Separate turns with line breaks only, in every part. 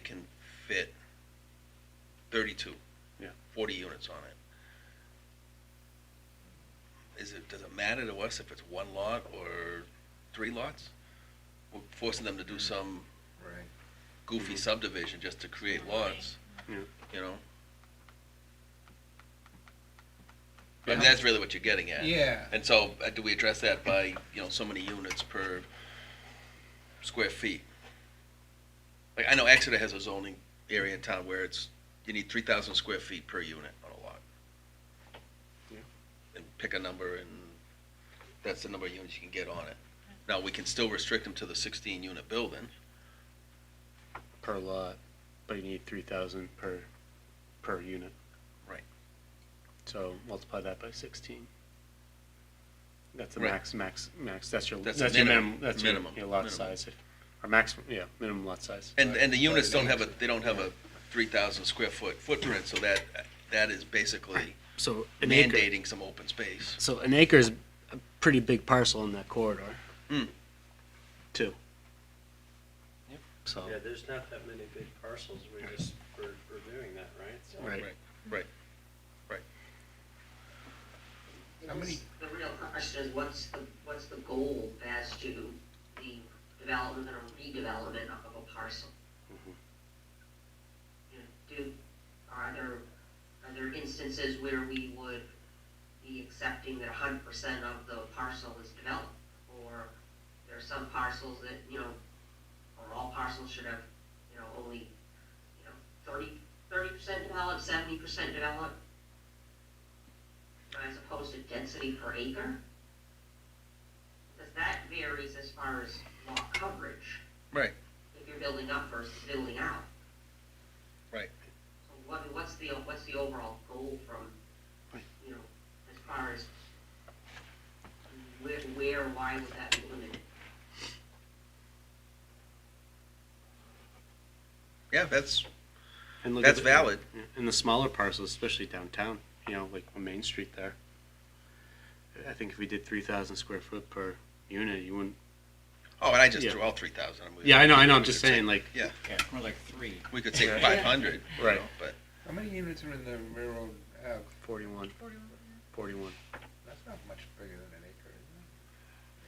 can fit thirty-two.
Yeah.
Forty units on it. Is it, does it matter to us if it's one lot or three lots? We're forcing them to
Mm.
do some
Right.
goofy subdivision just to create lots.
Mm-hmm. Yeah.
You know? I mean, that's really what you're getting at.
Yeah,
And so, uh, do we address that by, you know, so many units per square feet? Like, I know Exeter has a zoning area in town where it's, you need three thousand square feet per unit on a lot.
Yeah.
And pick a number and that's the number of units you can get on it. Now, we can still restrict them to the sixteen unit building,
per lot, but you need three thousand per, per unit.
Right.
So multiply that by sixteen. That's the
Right.
max, max, max, that's your,
That's
that's your
minimum,
minimum, that's your,
minimum,
your lot
minimum.
size, or maximum, yeah, minimum lot size.
and, and the units
Right.
don't have a, they don't have a three thousand square foot footprint, so that, that is basically
So an acre,
mandating some open space.
so an acre is a pretty big parcel in that corridor.
Hmm.
Too.
Yep.
So,
Yeah, there's not that many big parcels, we're just, we're, we're doing that, right? So-
right,
Right.
The real question is, what's the, what's the goal as to the development or redevelopment of a parcel?
Mhm.
You know, do, are there, are there instances where we would be accepting that hundred percent of the parcel is developed? Or there are some parcels that, you know, or all parcels should have, you know, only, you know, thirty, thirty percent developed, seventy percent developed? as opposed to density per acre? Because that varies as far as lot coverage.
Right.
If you're building up versus building out.
Right.
So what, what's the, what's the overall goal from, you know, as far as where, where, why would that be limited?
Yeah, that's,
And look at
that's
the-
valid.
Yeah, And the smaller parcels, especially downtown, you know, like on Main Street there. I think if we did three thousand square foot per unit, you wouldn't.
Oh, and I just
Yeah.
drew out three thousand.
Yeah, I know, I know, I'm just saying, like,
More like three.
We could take five hundred,
Right.
But
How many units are in the railroad ave?
forty-one, forty-one.
That's not much bigger than an acre,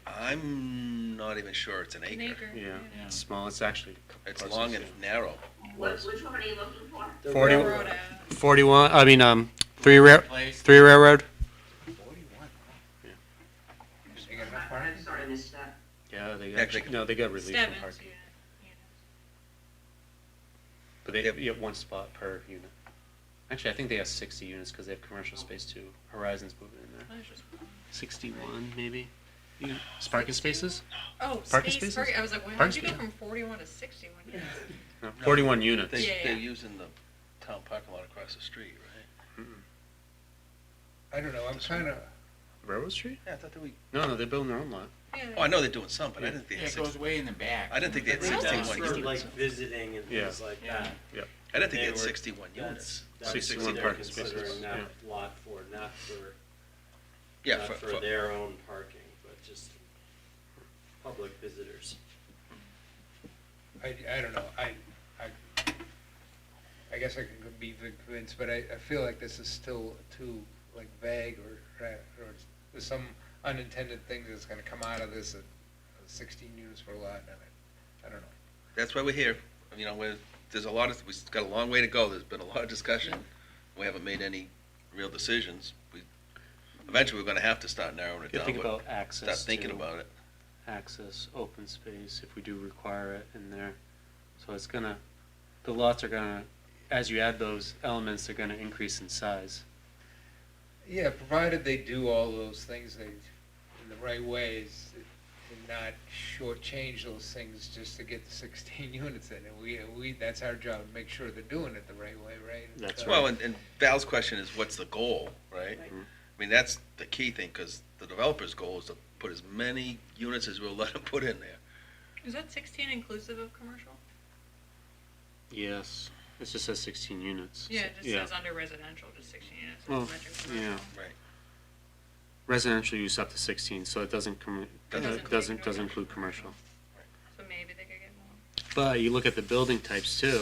is
I'm not even sure it's an
An
acre.
acre.
Yeah,
Yeah.
it's small, it's actually. a couple
It's
parcels,
long
yeah.
and narrow.
What, which one are you looking for?
The
Forty-
railroad-
Rhoda.
Forty-one, I mean, um, three rail,
Place.
three railroad?
it? Forty-one.
Yeah.
They got enough
I- I'm
parking?
sorry, I missed that.
Yeah, they
Actually-
got, no, they got relief from
Seven.
parking,
yeah,
but they
Yep.
have, you have one spot per unit. Actually, I think they have sixty units, cause they have commercial space too, Horizon's moving in there.
yeah. That's just-
Sixty-one, maybe? You, parking spaces?
Oh,
Parking
space,
spaces?
parking, I was like, well,
Parking
how'd you go
space.
from forty-one to sixty-one? Yeah.
No,
No.
Forty-one units.
They,
Yeah,
they're
yeah.
using the town parking lot across the street, right?
I don't know, I'm kinda,
Railroad Street?
Yeah, I thought that we.
No, no, they're building their own lot.
Yeah,
Oh, I know they're doing some, but I didn't think
Yeah,
they had
it
six.
goes way in the back.
I didn't think they had
Really?
That's
sixty-one
for
units.
like visiting and
Yeah.
things like
Yeah.
that.
I didn't think
they
they had
were-
sixty-one
That's,
units.
that's
Sixty-one
what they're
parking spaces,
considering that
yeah.
lot for, not for,
Yeah,
not
for,
for
for,
their own parking, but just public visitors.
I, I don't know, I, I, I guess I can be convinced, but I, I feel like this is still too, like, vague or, tra- or there's some unintended thing that's gonna come out of this, uh, sixteen units per lot, and I, I don't know.
that's why we're here. You know, we're, there's a lot of, we've got a long way to go. There's been a lot of discussion. We haven't made any real decisions. We, eventually, we're gonna have to start narrowing it
You
down,
think
but
about access.
start thinking
to-
about it.
Access, open space, if we do require it in there. So it's gonna, the lots are gonna, as you add those elements, they're gonna increase in size.
Yeah, provided they do all those things they, in the right ways, and not shortchange those things just to get the sixteen units in, and we, we, that's our job, make sure they're doing it the right way, right?
That's
So-
Well, and, and Val's question is, what's the goal, right?
Right.
I mean, that's the key thing, because the developer's goal is to put as many units as we'll let him put in there.
Is that sixteen inclusive of commercial?
Yes, it just says sixteen units.
Yeah, it just says under residential, just sixteen units.
Well,
it's metric commercial.
yeah.
Right.
Residential use up to sixteen, so it doesn't com, uh,
Doesn't
doesn't,
include
doesn't
commercial.
include commercial.
So maybe they could get more.
But you look at the building types too,